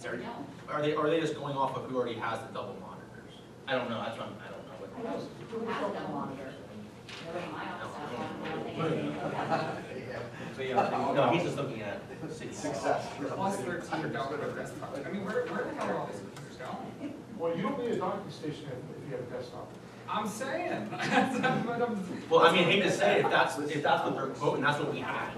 They're- No. Are they, are they just going off of who already has the double monitors? I don't know, that's what, I'm- I don't know what. Who knows, who has a double monitor? Nobody in my office has one, I don't think anybody knows that. So, Oh, yeah, no, he's just looking at city. Success. Plus thirteen dollars of desktop. I mean, where, where the hell are all these computers going? Well, you don't need a docking station if if you have a desktop. I'm saying. But I'm- Well, I mean, hate to say, it, if that's, if that's what they're quoting, that's what we had.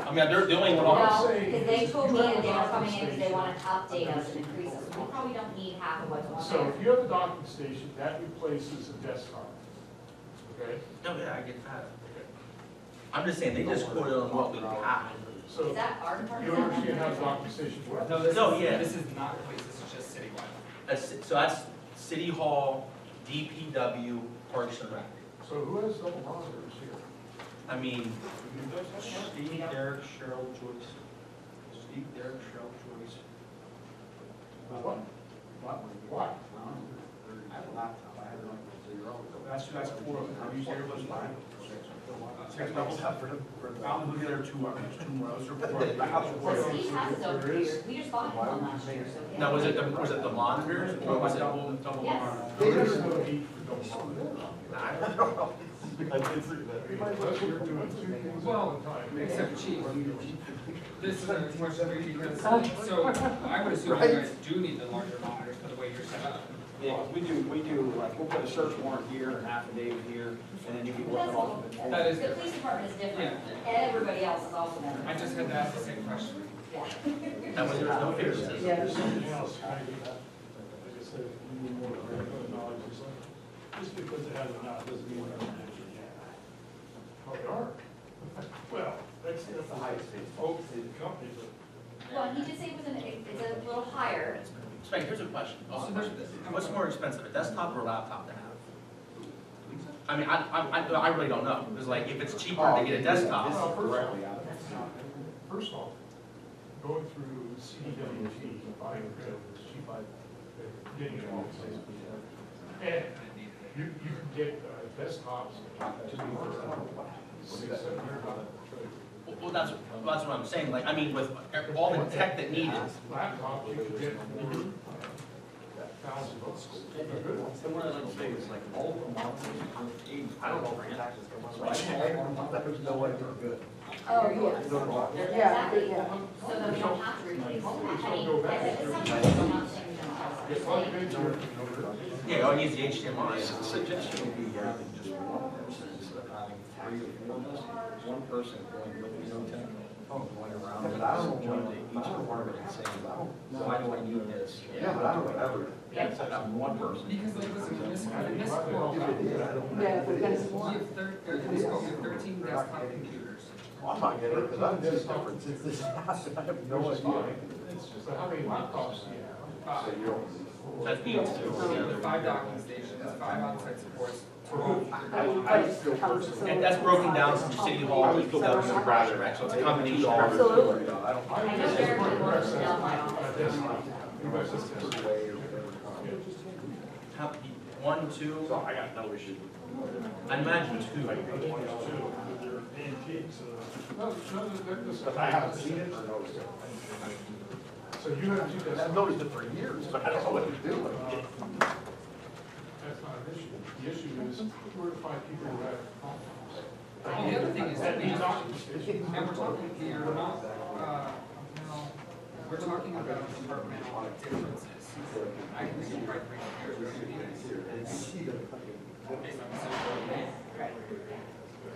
I mean, they're doing what all. No, because they told me that they were coming in because they want to update us and increase us, we probably don't need half of what's So on if you have a docking station, that replaces a desktop. Okay? No, yeah, I get that. I'm just saying, they just quoted on what we had. there. So Is that our part? you understand how docking stations work. No, this No, is, yeah. this is not a place, this is just citywide. That's, so that's City Hall, DPW, Parks and Rec. So who has double monitors here? I mean, Steve, Derek, Cheryl, Joyce. Steve, Derek, Cheryl, Joyce. What? Why? I have a laptop, I have one. That's, that's four of them. Have you seen everyone's line? Six doubles up for them. I'm looking at two, I two more, those are four. I have four. So Steve has his own computer, we just bought him one last year, so. we now, have- was it the, was it the monitors or was it? Double Yes. There is no need for double monitors. I mean, Unless you're doing two things at Well, one time. Except chief, this is a question we need to, so I would assume you guys do need the larger monitors for the way you're set up. Yeah, we do, we do, like, we'll put a search warrant here, an affidavit here, and then you can work it off. of it. That is The police department is different, everybody else is also I different. just had to ask the same question. Yeah. That was, there was no favoritism. There's something else, I think, like I said, you need more granular knowledge or something. Just because it has an out doesn't mean they're an actual Well, they are. Well, that's, that's the highest thing, folks, the companies are. Well, he did say it was an, it's a little higher, Spank, here's a question. Also, there's- What's more expensive, a desktop or a laptop to have? I mean, I, I, I- I really don't know. It's like, if it's cheaper Oh, to get a desktop, Well, first of all, first of all, going through CDWG, buying credits, she buy, getting it all. And you, you can get uh, desktops to be for six, seven hundred dollars. well, that's, well, that's what I'm saying. Like, I mean, with all the tech that needs, laptop you could get for thousand bucks. A good one. And what I'd like to say is like, all of them, I don't know, for taxes. Oh, yes. Yeah, Exactly, so that we don't have to replace, I mean, I said, it's something we're not saying no. It's like a good year. yeah, all you need is the HDMI. Suggestion would be having just one person instead of having three or four of us, one person going with the own tech, going around. and going to Each department and saying, why do I need this? Yeah, but I don't ever. Yeah. Instead of one person. Because like, listen, when this, when this quote, Yeah, but that's you one. have thir- there- this quote, you have thirteen desktop computers. I'm not getting it, because I'm just different since this happened, I have no idea. It's just, like, how many laptops do you have? Uh, Five, That needs to, Oh, yeah. five docking stations, five on-site supports. I just feel personally. And that's broken down from City Hall, DPW, and Broward, right? So it's a combination. of- Absolutely. I know Derek would want to know my office. A desktop. You guys just- How- One, two. I got no issue. I imagine two. No, no, no, no, no. I haven't seen it or noticed it. So you have two I've desktops, noticed it for years, but I don't know what to do with it. that's not an issue. The issue is, where to find people who have laptops? And the other thing is that we That means have docking station. And we're talking here, not, uh, no, we're talking about departmental differences. I can see right here, we're gonna be. Based on the social media.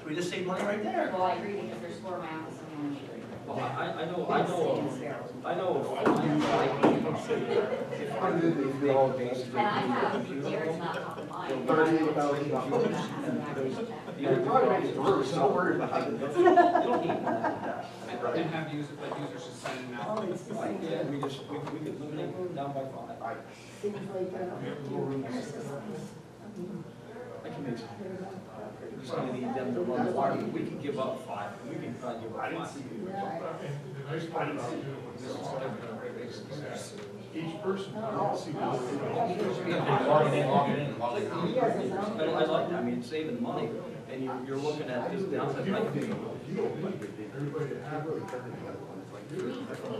We just saved money right there. Well, I agree, because there's four in my office and one in the street. Well, I, I know, I know, I know. And I have Derek's laptop and mine. Thirty thousand dollars. You're probably right, it's worse, so don't worry about it. And have users, like users just signing out. Oh, it's just like, Yeah, we just, we, we could limit it down by five. things like, uh, I can make, just gonna need them to run the wire, we can give up five, we can probably give up five. yeah, And the nice part about doing this is that each person can see what They Log it in, log it in, log it in. But I like that, I mean, it's saving money, and you're, you're looking at this downside, like, everybody has. We- we